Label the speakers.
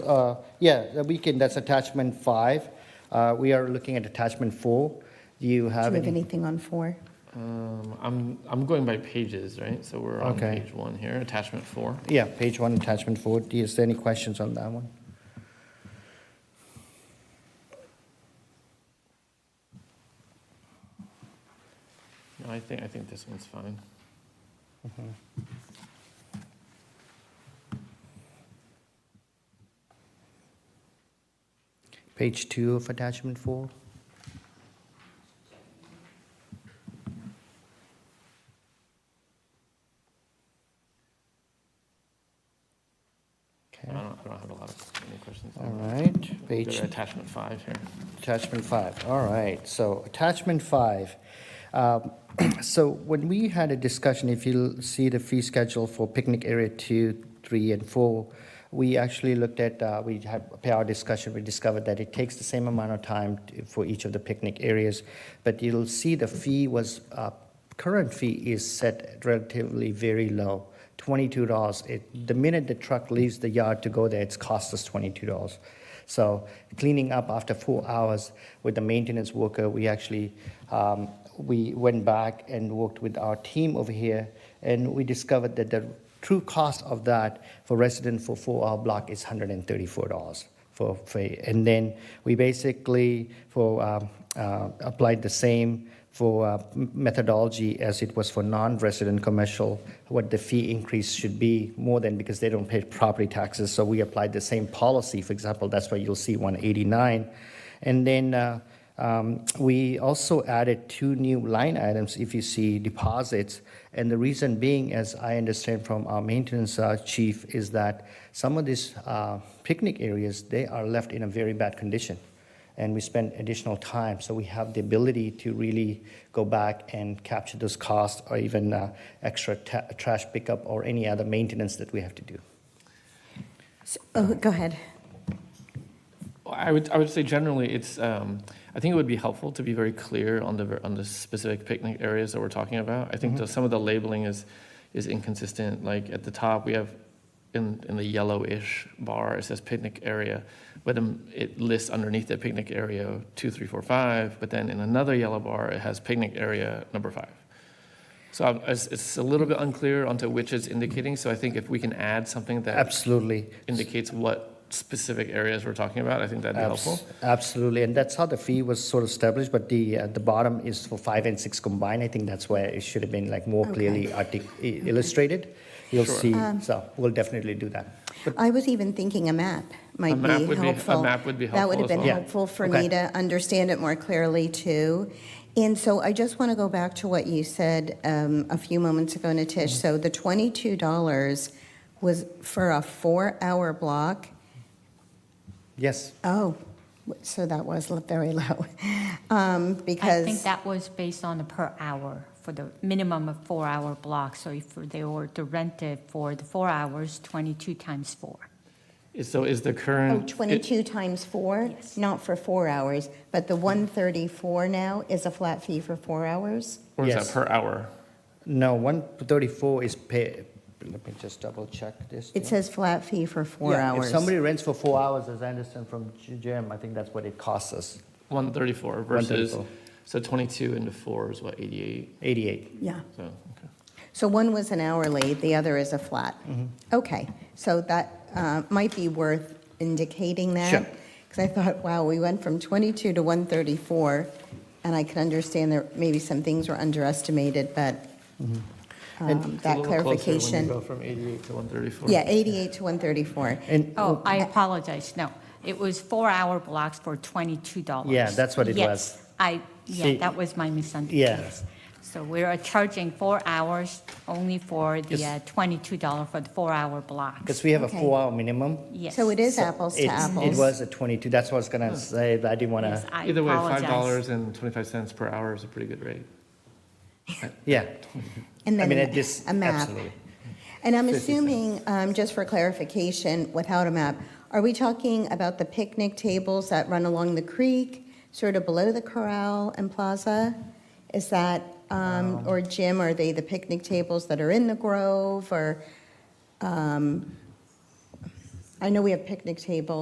Speaker 1: uh, yeah, we can, that's attachment five. Uh, We are looking at attachment four. Do you
Speaker 2: Do
Speaker 1: have
Speaker 2: you have
Speaker 1: any?
Speaker 2: anything on four?
Speaker 3: Um, I'm, I'm going by pages, right? So we're on
Speaker 1: Okay.
Speaker 3: page one here, attachment four.
Speaker 1: Yeah, page one, attachment four. Is there any questions on that one?
Speaker 3: No, I think, I think this one's fine.
Speaker 1: Page two of attachment four?
Speaker 3: I
Speaker 1: Okay,
Speaker 3: don't, I don't have a lot of, any questions. on
Speaker 1: all
Speaker 3: that.
Speaker 1: right,
Speaker 3: Go to
Speaker 1: page
Speaker 3: Attachment five here.
Speaker 1: Attachment five, all right, so attachment five. Um, So when we had a discussion, if you'll see the fee schedule for picnic area two, three, and four, we actually looked at, uh, we had, per our discussion, we discovered that it takes the same amount of time to- for each of the picnic areas, but you'll see the fee was, uh, current fee is set relatively very low, twenty-two dollars. It, the minute the truck leaves the yard to go there, it's cost us twenty-two dollars. So cleaning up after four hours with the maintenance worker, we actually um, we went back and worked with our team over here, and we discovered that the true cost of that for resident for four-hour block is hundred and thirty-four dollars for, for and then we basically for um, uh, applied the same for uh, m- methodology as it was for non-resident commercial what the fee increase should be more than because they don't pay property taxes so we applied the same policy for example that's why you'll see 189 and then uh, um, we also added two new line items if you see deposits and the reason being as i understand from our maintenance uh, chief is that some of these uh, picnic areas they are left in a very bad condition and we spend additional time. So we have the ability to really go back and capture those costs or even uh, extra ta- trash pickup or any other maintenance that we have to do.
Speaker 2: S- Oh, go ahead.
Speaker 3: Well, I would, I would say generally, it's, um, I think it would be helpful to be very clear on the, ver- on the specific picnic areas that we're talking about. I think the- some of the labeling is, is inconsistent, like at the top, we have, in, in the yellowish bar, it says picnic area, but um, it lists underneath the picnic area two, three, four, five, but then in another yellow bar, it has picnic area number five. So I'm- it's, it's a little bit unclear onto which it's indicating, so I think if we can add something that
Speaker 1: Absolutely.
Speaker 3: indicates what specific areas we're talking about, I think that'd be
Speaker 1: Abs-
Speaker 3: helpful.
Speaker 1: Absolutely. And that's how the fee was sort of established, but the at the bottom is for five and six combined. I think that's where it should have been like more
Speaker 2: Okay. Um,
Speaker 1: clearly artic- i- illustrated. You'll see. so we'll definitely do that.
Speaker 2: I was even thinking a map
Speaker 3: A
Speaker 2: might be
Speaker 3: map would be- a
Speaker 2: helpful.
Speaker 3: map would be
Speaker 2: That would
Speaker 3: helpful
Speaker 2: have
Speaker 3: as
Speaker 2: been
Speaker 3: well.
Speaker 1: Yeah.
Speaker 2: helpful for
Speaker 1: Okay.
Speaker 2: me to understand it more clearly, too. And so I just want to go back to what you said um, a few moments ago, Natish. So the $22 was for a four-hour block?
Speaker 1: Yes.
Speaker 2: Oh, w- so that was l- very low, Um,
Speaker 4: I think
Speaker 2: because,
Speaker 4: that was based on the per hour for the minimum of four-hour block. So if they were to rent it for the four hours, 22 times four.
Speaker 3: Is- So is the
Speaker 2: oh,
Speaker 3: current? it-
Speaker 2: 22 times four?
Speaker 4: Yes.
Speaker 2: Not for four hours, but the 134 now is a flat fee for four hours?
Speaker 3: Or is
Speaker 1: Yes.
Speaker 3: that per hour?
Speaker 1: No, 134 is pay. Let me just double check this.
Speaker 2: It
Speaker 1: thing.
Speaker 2: says flat fee for four
Speaker 1: Yeah,
Speaker 2: hours.
Speaker 1: If somebody rents for four hours, as I understand from J- Jim, I think that's what it costs us,
Speaker 3: 134 versus,
Speaker 1: 134.
Speaker 3: so 22 into 4 is what, 88?
Speaker 1: 88.
Speaker 2: Yeah,
Speaker 3: So, okay.
Speaker 2: so one was an hourly, the other is a flat.
Speaker 3: Mm-hmm.
Speaker 2: Okay, so that uh, might be worth indicating that.
Speaker 1: Sure.
Speaker 2: Because I thought, wow, we went from 22 to 134, and I can understand that maybe some things were underestimated, but
Speaker 1: And
Speaker 2: um,
Speaker 3: Mm-hmm. It's a
Speaker 2: that
Speaker 3: little closer when you
Speaker 2: clarification.
Speaker 3: go from 88 to 134.
Speaker 2: Yeah, 88 to 134.
Speaker 1: And,
Speaker 4: Oh, I apologize, no. It was four-hour blocks for $22.
Speaker 1: Yeah, that's what it
Speaker 4: Yes,
Speaker 1: was.
Speaker 4: I, yeah,
Speaker 1: See-
Speaker 4: that was my
Speaker 1: Yeah.
Speaker 4: misunderstanding. Yes. So we're charging four hours only for the uh,
Speaker 1: Yes.
Speaker 4: $22 for the four-hour blocks.
Speaker 1: because we have a
Speaker 2: Okay.
Speaker 1: four-hour minimum.
Speaker 4: Yes.
Speaker 2: So it is
Speaker 1: so
Speaker 2: apples to
Speaker 1: it's- It
Speaker 2: apples. Hmm.
Speaker 1: was a 22, that's what I was gonna say, but I didn't wanna,
Speaker 4: Yes, I
Speaker 3: Either way,
Speaker 4: apologize.
Speaker 3: $5.25 per hour is a pretty good rate.
Speaker 1: yeah.
Speaker 2: And
Speaker 1: I
Speaker 2: then
Speaker 1: mean,
Speaker 2: a
Speaker 1: it
Speaker 2: ma-
Speaker 1: just,
Speaker 2: a map.
Speaker 1: absolutely.
Speaker 2: And I'm
Speaker 1: 50 cents.
Speaker 2: assuming, um, just for clarification, without a map, are we talking about the picnic tables that run along the creek, sort of below the corral and plaza? Is that, um, or Jim, are they the picnic tables that are in the grove, or, um, I know we have picnic tables.